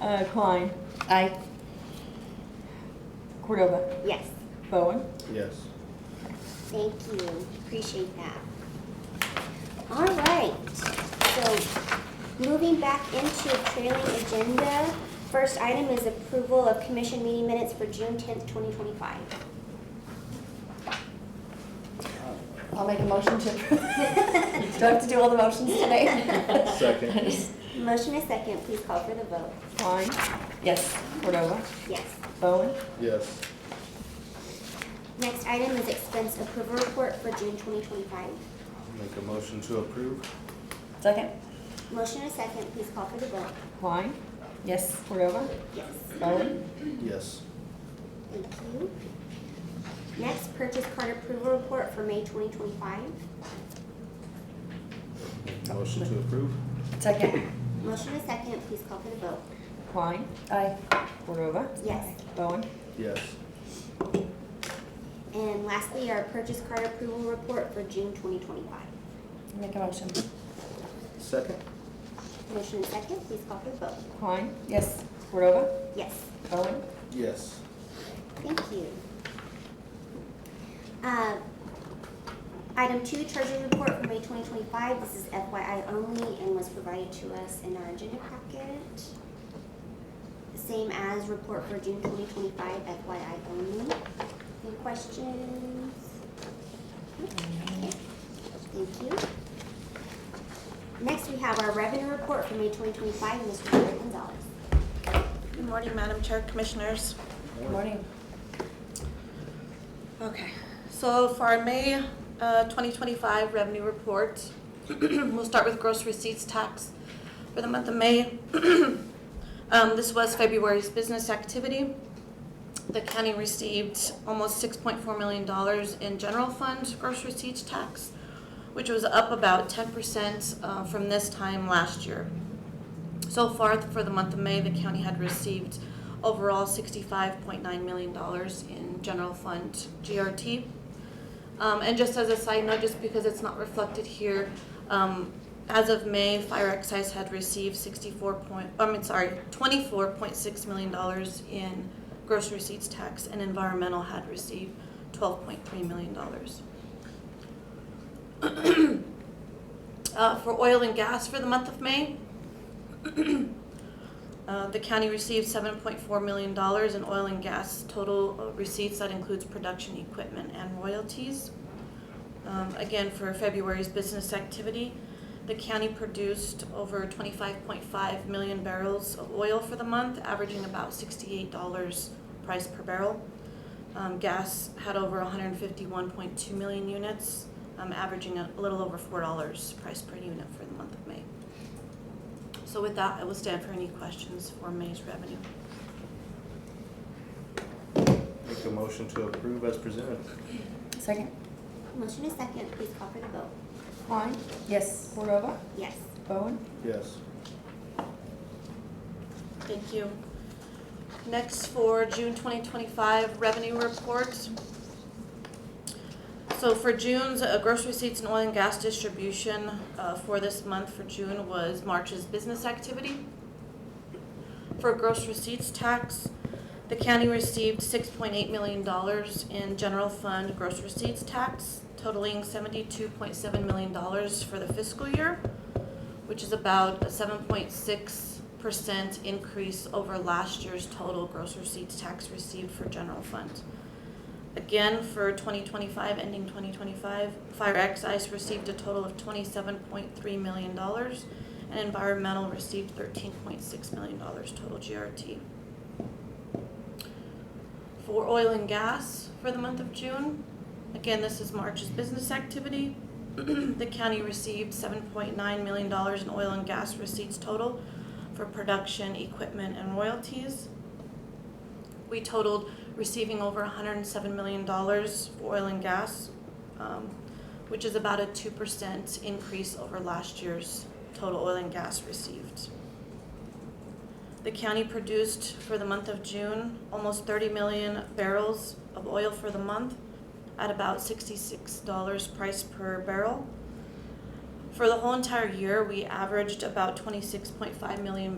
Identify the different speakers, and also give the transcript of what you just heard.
Speaker 1: Uh, Klein,
Speaker 2: Aye.
Speaker 1: Cordova,
Speaker 3: Yes,
Speaker 1: Bowen.
Speaker 4: Yes.
Speaker 3: thank you, appreciate that. All right, so moving back into trailing agenda, first item is approval of commission meeting minutes for June tenth, twenty twenty-five.
Speaker 2: I'll make a motion to approve. Do I have to do all the motions today?
Speaker 4: Second.
Speaker 3: Motion is second, please call for the vote.
Speaker 1: Klein,
Speaker 2: Yes.
Speaker 1: Cordova,
Speaker 3: Yes.
Speaker 1: Bowen.
Speaker 4: Yes.
Speaker 3: Next item is expense approval report for June twenty twenty-five.
Speaker 4: Make a motion to approve?
Speaker 2: Second?
Speaker 3: Motion is second, please call for the vote.
Speaker 1: Klein,
Speaker 2: Yes.
Speaker 1: Cordova,
Speaker 3: Yes.
Speaker 1: Bowen.
Speaker 4: Yes.
Speaker 3: Thank you. Next, purchase card approval report for May twenty twenty-five.
Speaker 4: Make a Motion to approve?
Speaker 2: Second?
Speaker 3: Motion is second, please call for the vote.
Speaker 1: Klein,
Speaker 2: Aye.
Speaker 1: Cordova,
Speaker 3: Yes.
Speaker 1: Bowen.
Speaker 4: Yes.
Speaker 3: And lastly, our purchase card approval report for June twenty twenty-five.
Speaker 2: Make a motion.
Speaker 4: Second?
Speaker 3: Motion is second, please call for the vote.
Speaker 1: Klein,
Speaker 2: Yes.
Speaker 1: Cordova,
Speaker 3: Yes.
Speaker 1: Bowen.
Speaker 4: Yes.
Speaker 3: Thank you. Uh, Item two, treasury report for May twenty twenty-five. This is FYI only and was provided to us in our agenda packet. Same as report for June twenty twenty-five, FYI only. Any questions? Okay. Thank you. Next, we have our revenue report for May twenty twenty-five, Mr. Jerry Gonzalez.
Speaker 5: Good morning, Madam Chair, Commissioners.
Speaker 2: Good morning.
Speaker 5: Okay, so for our May uh, 2025 revenue report, we'll start with gross receipts tax for the month of May. Um, This was February's business activity. The county received almost $6.4 million in general fund gross receipts tax, which was up about 10% uh, from this time last year. So far, for the month of May, the county had received overall $65.9 million in general fund GRT. Um, and just as a side note, just because it's not reflected here, um, as of May, fire excise had received 64 point, I mean, sorry, $24.6 million in gross receipts tax, and environmental had received $12.3 million. Uh, for oil and gas for the month of May, uh, the county received $7.4 million in oil and gas total uh, receipts. That includes production equipment and royalties. Um, again, for February's business activity, the county produced over 25.5 million barrels of oil for the month, averaging about $68 price per barrel. Um, gas had over 151.2 million units, um, averaging a little over $4 price per unit for the month of May. So with that, I will stand for any questions for May's revenue.
Speaker 4: Make a motion to approve as presented?
Speaker 2: Second?
Speaker 3: Motion is second, please call for the vote.
Speaker 1: Klein,
Speaker 2: Yes.
Speaker 1: Cordova,
Speaker 3: Yes.
Speaker 1: Bowen.
Speaker 4: Yes.
Speaker 5: Thank you. Next for June 2025 revenue report. So for June's uh, gross receipts and oil and gas distribution uh, for this month for June was March's business activity. For gross receipts tax, the county received $6.8 million in general fund gross receipts tax totaling $72.7 million for the fiscal year which is about a seven point six percent increase over last year's total gross receipts tax received for general fund. Again, for twenty twenty-five, ending twenty twenty-five, fire excise received a total of twenty-seven point three million dollars, and environmental received thirteen point six million dollars total GRT. For oil and gas for the month of June, again, this is March's business activity. The county received seven point nine million dollars in oil and gas receipts total for production, equipment, and royalties. We totaled receiving over hundred and seven million dollars for oil and gas, um, which is about a two percent increase over last year's total oil and gas received. The county produced for the month of June almost 30 million barrels of oil for the month at about $66 price per barrel. For the whole entire year, we averaged about 26.5 million